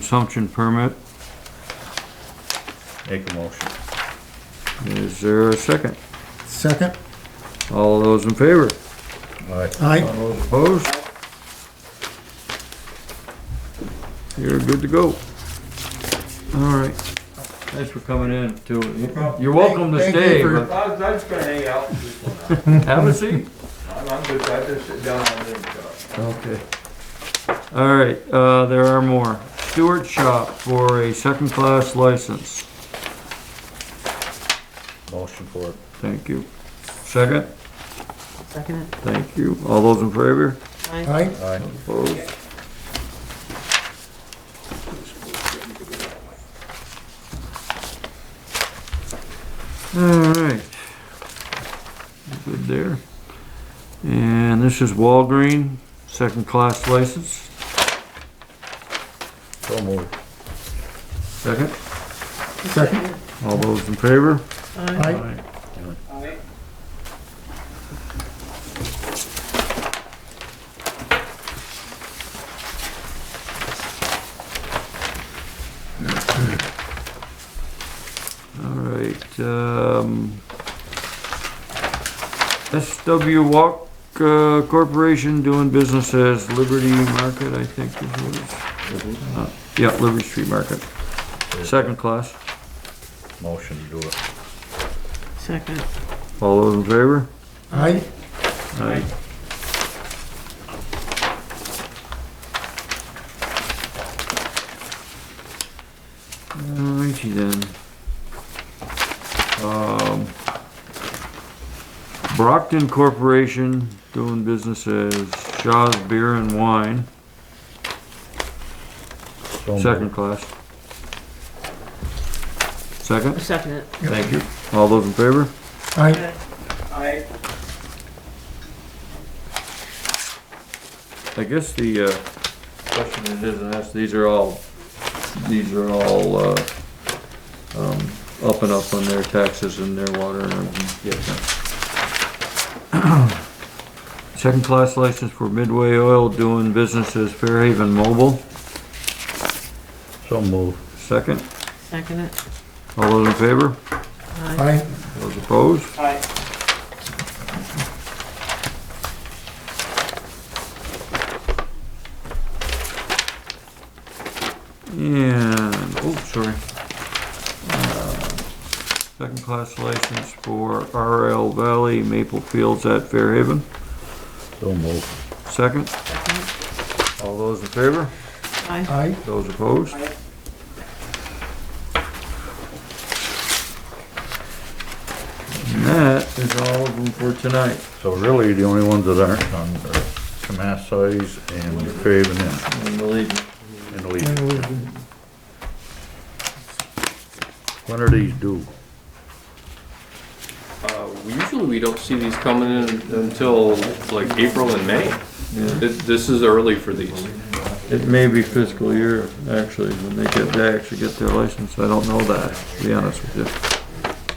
consumption permit. Make a motion. Is there a second? Second? All those in favor? Aye. All Aye. those opposed? You're good to go. All right. Thanks for coming in too. You're welcome to Thank you stay, for- but I was, I was gonna hang out. just for now. have a seat. I'm, I'm good, I just sit down and then talk. Okay. All right, uh, there are more. Stewart Shop for a second-class license. Motion for it. Thank you. Second? Second it. Thank you. All those in favor? Aye. Aye. Aye. Opposed? All right. Good there. And this is Walgreen, second-class license. So moved. Second? Second? All those in favor? Aye. Aye. All right, um, SW Walk uh, Corporation doing business as Liberty Market, I think is what it is. Uh, Yeah, Liberty Street Market, second class. Motion to do it. Second. All those in favor? Aye. Aye. Alrighty then. Um, Brockton Corporation doing business as Shaw's Beer and Wine, So moved. second class. Second, Second it. thank you. All those in favor? Aye. I, I guess the, uh, question that isn't asked, these are all, these are all, uh, um, up and up on their taxes and their water and everything. Second class license for Midway Oil doing business as Fairhaven Mobile, So moved. second. Second it. All those in favor? Aye. Aye. Those opposed? I, And, oh, sorry. Uh, Second class license for RL Valley Maple Fields at Fairhaven, So moved. second. Second it. All those in favor? Aye. Aye. Those opposed? Aye. And that is all of them for tonight. So really, the only ones that aren't on are Tomasso's and Faven and- And we'll leave it. and Lee. And we- When are these due? Uh, Usually we don't see these coming in until like April and May. This, this is early for these. It may be fiscal year, actually, when they get, they actually get their license, I don't know that, to be honest with you.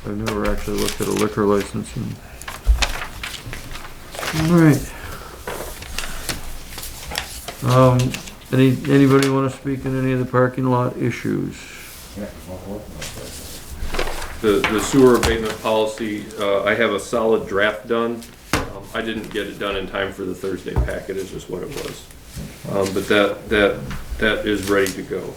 I've never actually looked at a liquor license and. Alright. Um, any, anybody wanna speak on any of the parking lot issues? The, the sewer abatement policy, uh, I have a solid draft done. Um, I didn't get it done in time for the Thursday packet, is just what it was. Um, but that, that, that is ready to go.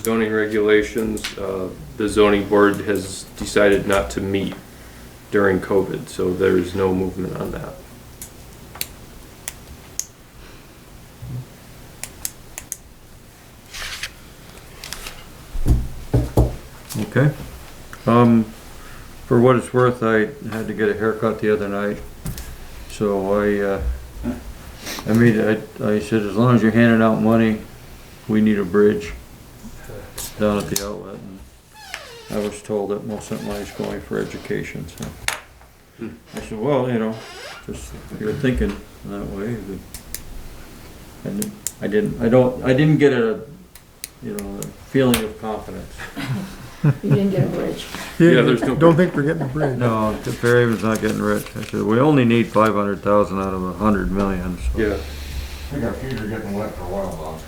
Zoning regulations, uh, the zoning board has decided not to meet during COVID, so there is no movement on that. Okay. Um, for what it's worth, I had to get a haircut the other night, so I, uh, I mean, I, I said, as long as you're handing out money, we need a bridge down at the outlet. And I was told that most of money's going for education, so. I said, well, you know, just, you're thinking that way, but. And I didn't, I don't, I didn't get a, you know, a feeling of confidence. You didn't get a bridge. Yeah, there's no- Don't think we're getting a bridge. No, the Fairhaven's not getting rich. I said, we only need five hundred thousand out of a hundred million, so. Yeah. I think our feet are getting wet for a while, Bob.